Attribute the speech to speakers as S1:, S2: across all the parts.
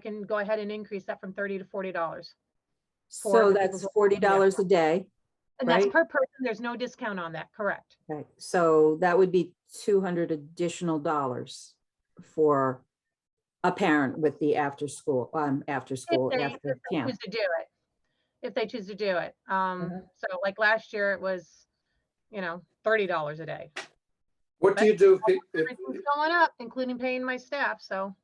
S1: can go ahead and increase that from thirty to forty dollars. for
S2: So
S1: people
S2: that's
S1: who-
S2: forty dollars a day.
S1: And that's
S2: Right.
S1: per person. There's no discount on that, correct?
S2: Okay, so that would be two hundred additional dollars for a parent with the after school, um, after school,
S1: If they-
S2: after
S1: if they
S2: camp.
S1: choose to do it, if they choose to do it. Um, so like last year it was, you know, thirty dollars a day.
S3: What do you do, if pe- if-
S1: Everything's going up, including paying my staff, so.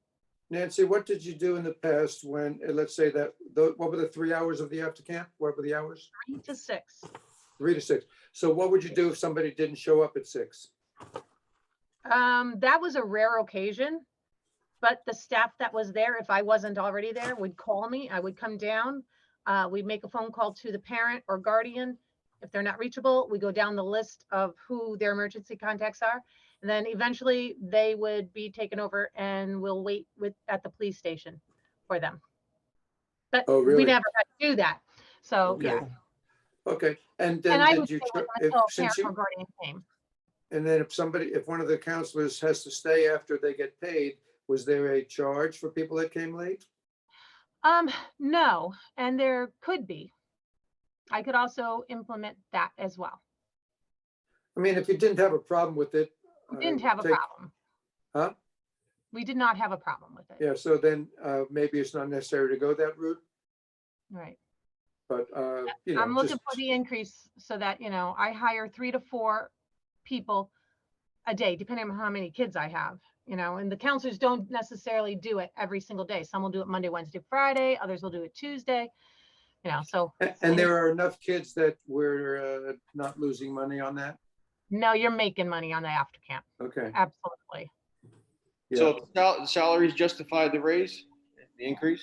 S3: Nancy, what did you do in the past when, uh, let's say that, tho- what were the three hours of the after camp? What were the hours?
S1: three to six.
S3: Three to six. So what would you do if somebody didn't show up at six?
S1: Um, that was a rare occasion. But the staff that was there, if I wasn't already there, would call me. I would come down. Uh, we'd make a phone call to the parent or guardian. If they're not reachable, we go down the list of who their emergency contacts are. And then eventually they would be taken over and we'll wait with, at the police station for them. But
S3: Oh,
S1: we
S3: really?
S1: never had to do that. So,
S3: Okay.
S1: yeah.
S3: Okay, and
S1: And I
S3: then
S1: would
S3: did
S1: say
S3: you,
S1: like
S3: tr- if,
S1: until a
S3: since
S1: parent or
S3: you,
S1: guardian came.
S3: and then if somebody, if one of the counselors has to stay after they get paid, was there a charge for people that came late?
S1: Um, no, and there could be. I could also implement that as well.
S3: I mean, if you didn't have a problem with it.
S1: We
S3: uh,
S1: didn't have a
S3: take-
S1: problem.
S3: Huh?
S1: We did not have a problem with it.
S3: Yeah, so then uh, maybe it's not necessary to go that route,
S1: Right.
S3: but, uh, you know.
S1: I'm looking
S3: just-
S1: for the increase so that, you know, I hire three to four people a day, depending on how many kids I have, you know, and the counselors don't necessarily do it every single day. Some will do it Monday, Wednesday, Friday, others will do it Tuesday. You know, so
S3: A- And there are enough kids that we're uh, not losing money on that?
S1: no, you're making money on the after camp.
S3: Okay.
S1: Absolutely.
S3: yeah.
S4: So sal- salaries justify the raise, the increase?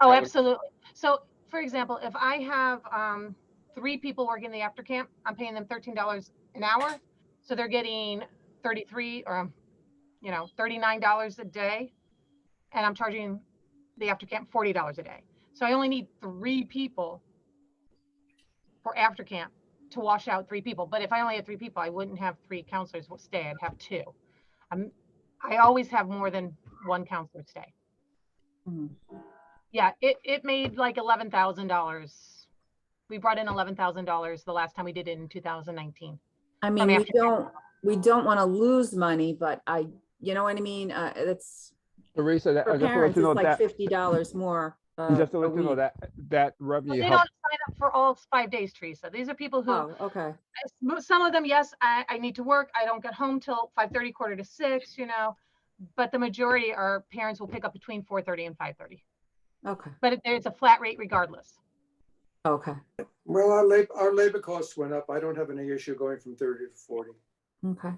S1: Oh,
S4: That would-
S1: absolutely. So, for example, if I have um, three people working the after camp, I'm paying them thirteen dollars an hour, so they're getting thirty-three or, um, you know, thirty-nine dollars a day, and I'm charging the after camp forty dollars a day. So I only need three people for after camp to wash out three people. But if I only had three people, I wouldn't have three counselors w- stay. I'd have two. I'm, I always have more than one counselor stay.
S2: Mhm.
S1: Yeah, it, it made like eleven thousand dollars. We brought in eleven thousand dollars the last time we did it in two thousand nineteen.
S2: I mean, we
S1: after camp.
S2: don't, we don't want to lose money, but I, you know what I mean? Uh, that's,
S5: Teresa, that,
S2: for
S5: I just want
S2: parents,
S5: to
S2: it's
S5: know
S2: like
S5: that,
S2: fifty dollars more. uh,
S5: just to
S2: a
S5: let you know
S2: week.
S5: that, that
S1: But they
S5: revenue
S1: don't sign
S5: helps.
S1: up for all five days, Teresa. These are people who,
S2: Oh, okay.
S1: mo- some of them, yes, I, I need to work. I don't get home till five thirty, quarter to six, you know. But the majority are parents will pick up between four thirty and five thirty.
S2: Okay,
S1: But it, it's a flat rate regardless.
S2: okay,
S3: Well, our labor, our labor costs went up. I don't have any issue going from thirty to forty.
S2: okay.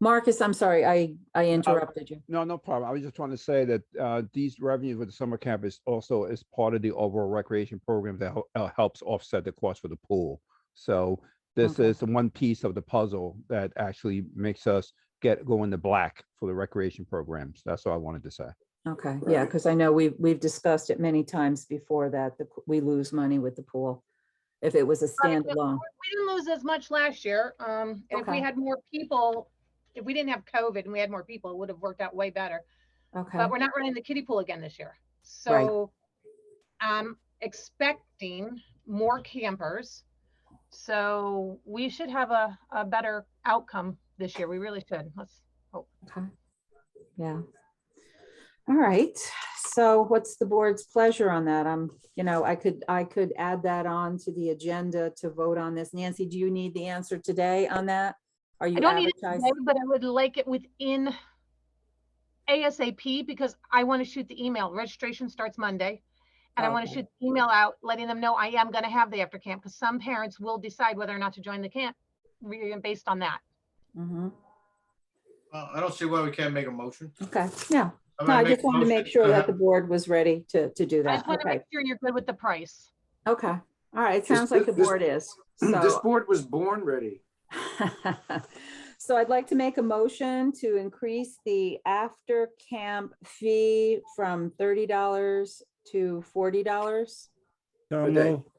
S2: Marcus, I'm sorry, I, I
S5: Uh,
S2: interrupted you.
S5: No, no problem. I was just trying to say that, uh, these revenues with the summer camp is also is part of the overall recreation program that hel- uh, helps offset the cost for the pool. So this
S2: Okay.
S5: is the one piece of the puzzle that actually makes us get, go in the black for the recreation programs. That's all I wanted to say.
S2: Okay, yeah,
S3: Right.
S2: because I know we've, we've discussed it many times before that the p- we lose money with the pool. If it was a
S1: Right, but
S2: standalone,
S1: We didn't lose as much last year. Um, and if we
S2: Okay.
S1: had more people, if we didn't have COVID and we had more people, it would have worked out way better.
S2: okay,
S1: but we're not running the kiddie pool again this year. So I'm expecting more campers. So we should have a, a better outcome this year. We really should. Let's,
S2: okay. Yeah. All right, so what's the board's pleasure on that? I'm, you know, I could, I could add that on to the agenda to vote on this. Nancy, do you need the answer today on that? Are you
S1: I don't need it today,
S2: advertising?
S1: but I would like it within ASAP because I want to shoot the email. Registration starts Monday. And I want to
S2: Okay.
S1: shoot the email out, letting them know I am going to have the after camp because some parents will decide whether or not to join the camp re- based on that.
S2: Mhm.
S6: Well, I don't see why we can't make a motion.
S2: Okay, no,
S6: I'm
S2: no,
S6: gonna
S2: I
S6: make a
S2: just wanted to
S6: motion
S2: make sure that
S3: Uh-huh.
S2: the
S6: have-
S2: board was ready to, to do
S1: I
S2: that.
S1: just want to
S2: Okay,
S1: make sure you're good with the price.
S2: okay, all right,
S3: This-
S2: sounds like the
S3: this-
S2: board is,
S3: This
S2: so.
S3: board was born ready.
S2: So I'd like to make a motion to increase the after camp fee from thirty dollars to forty dollars.
S7: So
S3: Okay.
S7: moved.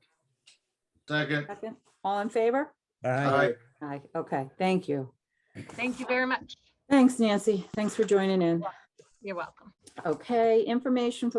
S6: Second,
S2: All in favor?
S7: Aye.
S3: I
S2: Aye, okay, thank you.
S1: Thank you very much.
S2: Thanks, Nancy. Thanks for joining in.
S1: You're welcome.
S2: Okay, information from